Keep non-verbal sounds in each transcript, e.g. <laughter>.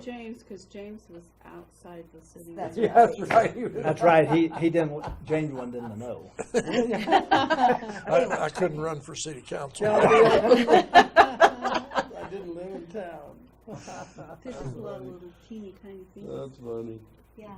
James, because James was outside the city. <laughs> That's Yeah, that's right. <laughs> That's right. He, he didn't, James one didn't know. <laughs> I, I couldn't run for city council. I didn't live in town. This is a little teeny tiny thing. That's funny. Yeah.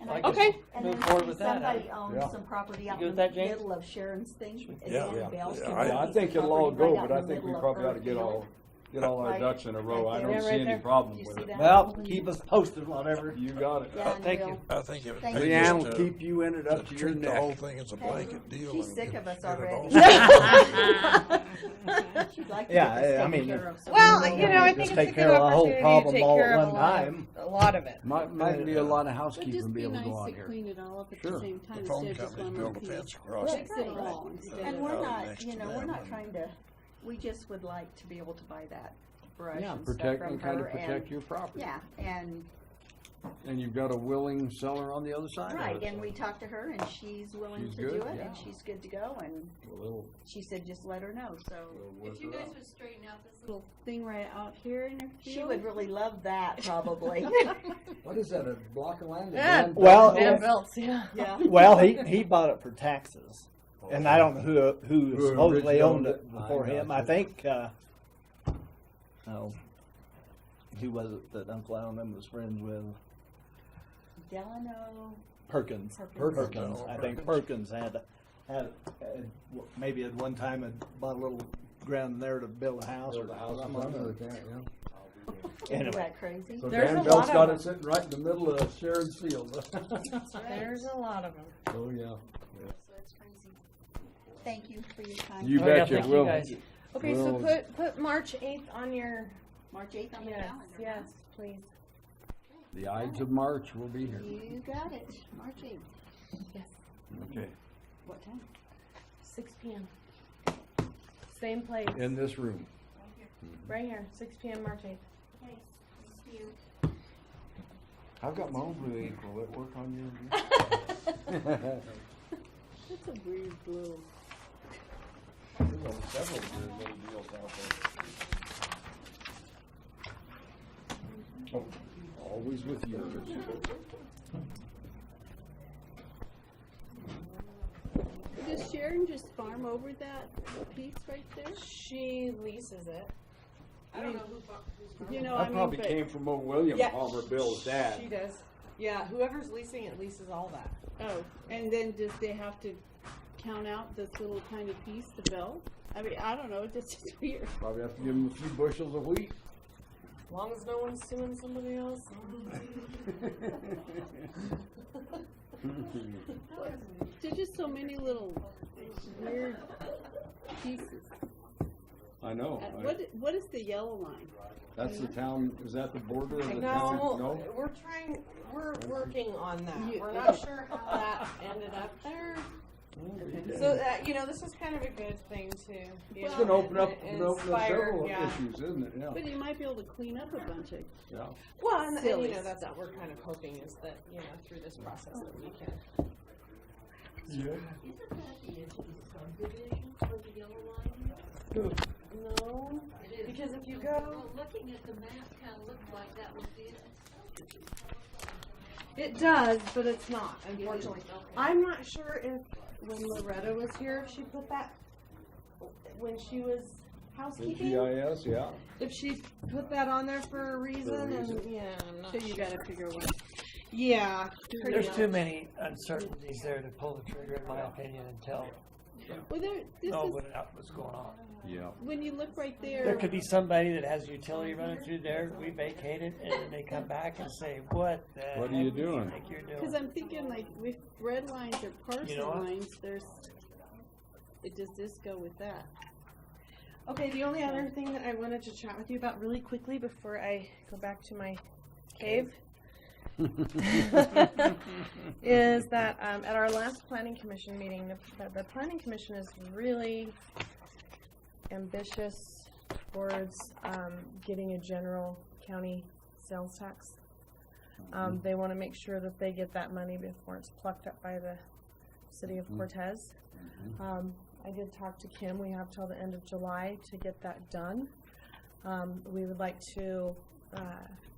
And I- Like Okay. And Move then forward with that, somebody Yeah. owns some property out good with in the that, James? middle of Sharon's thing. Yeah, yeah. Yeah, I- Yeah, I think it'll all go, but I think we probably ought to get all, get all our Right. ducks in a row. I Right don't there. see Right any there. problem You with see it. that? Well, keep us posted, whatever. You got it. Yeah, and Thank you. <laughs> we'll- I think it would Thank pay Oh, you. just Leanne to, uh, will keep you in it to up to your treat the whole neck. thing as a blanket deal. She's and sick get- of us get it all already. <laughs> Okay. She'd like to Yeah, get this I- I taken mean, care of, so Well, we I- know you know, I think Just it's take a care good of the whole opportunity to problem take all care at of a one lot, of- time. a lot of it. Might, might be a lot of Would housekeeping just be be able to go nice on to here. clean it all up at the Sure. same time The phone instead of just company one built a little fence piece. across Right. it. Fix it all instead And of- we're Oh, not, next you to know, that we're not one. trying to, we just would like to be able to buy that brush Yeah, and stuff protect from and kind her of protect and, your property. yeah, and, And you've got a willing seller on the other side. of right, it. and we talked to her and she's willing She's to good, do it yeah. and she's good to go and Well, it'll- she said just let her know, so. it'll work If you it guys out. would straighten out this little thing right out here in your field. <laughs> She would <laughs> really love that probably. <laughs> What is that, a block of land? Yeah. Well, Van Belts, yeah. Yeah. Well, he, he bought it for taxes. And I don't know who, who Who supposedly originally owned owned it it? before I him. know. I think, uh, oh, who was it that Uncle Allen was friends with? Delano, Perkins. Perkins. Perkins. I think Perkins had, had, had- maybe at one time had bought a little ground there to build a house or something. isn't Anyway, that crazy? So There's Dan a Bell's lot of got them. it sitting right in the middle of Sharon's field. There's a lot of them. Oh, yeah. So it's crazy. Thank you for your time. You Oh, yeah, bet you thank you will. guys. Okay, so Well- put, put March eighth on your, March eighth on the yes, calendar. yes, please. The Ides of March will be here. You got it, March eighth. Yes, Okay. What time? six P M. Same place, In this room. right here, six P M, March eighth. I've got my own blue ink. Will it work on you? That's a weird blue. Always with you. Does Sharon just farm over that piece right there? She leases it. I don't know who farms. You know, I That mean, probably but, came from old William Yeah, Palmer Bill's dad. She does. Yeah, whoever's leasing it leases all that. oh, and then does they have to count out this little tiny piece to Bell? I mean, I don't know, <laughs> it's just weird. Probably have to give him a few bushels of wheat. As long as no one's suing somebody else. There's just so many little weird pieces. I know. Uh, I- What, what is the yellow line? That's the town, is that the border of the town? No, we're trying, we're working on that. You- We're not sure how that ended up there. So that, you know, this is kind of a good thing to, you It's know. It's gonna open up, and open up inspire, several yeah. issues, isn't it? Yeah, But you might be able to clean up a bunch of, yeah. Well, and, and Silly you know, that's stuff. what we're kind of hoping is that, you know, through this process that we can. No, because if you go, Looking at the map kind of looked like that was the It does, but it's not, unfortunately. I'm not sure if, when Loretta was here, if she put that, when she was The housekeeping, GIS, yeah. if she put that on there for a reason and, reason. yeah, I'm so not you sure. gotta figure one. Yeah. There's too many uncertainties there to pull the trigger, in my opinion, and tell Well, there, this is, nobody out what's going on. Yeah. when you look right There there, could be somebody that has utility running through there, we vacate it, and then they come back and say, what the What are you heck do doing?" think you're cause doing? I'm thinking like with red lines or You know parcel what? lines, there's, it does this go with that? Okay, the only other thing that I wanted to chat with you about really quickly before I go back to my cave <laughs> is that um, at our last planning commission meeting, the, the, the planning commission is really ambitious towards um, getting a general county sales tax. Um, they want to make sure that they get that money before it's plucked up by the city of Cortez. Um, I did talk to Kim. We have till the end of July to get that done. Um, we would like to, uh,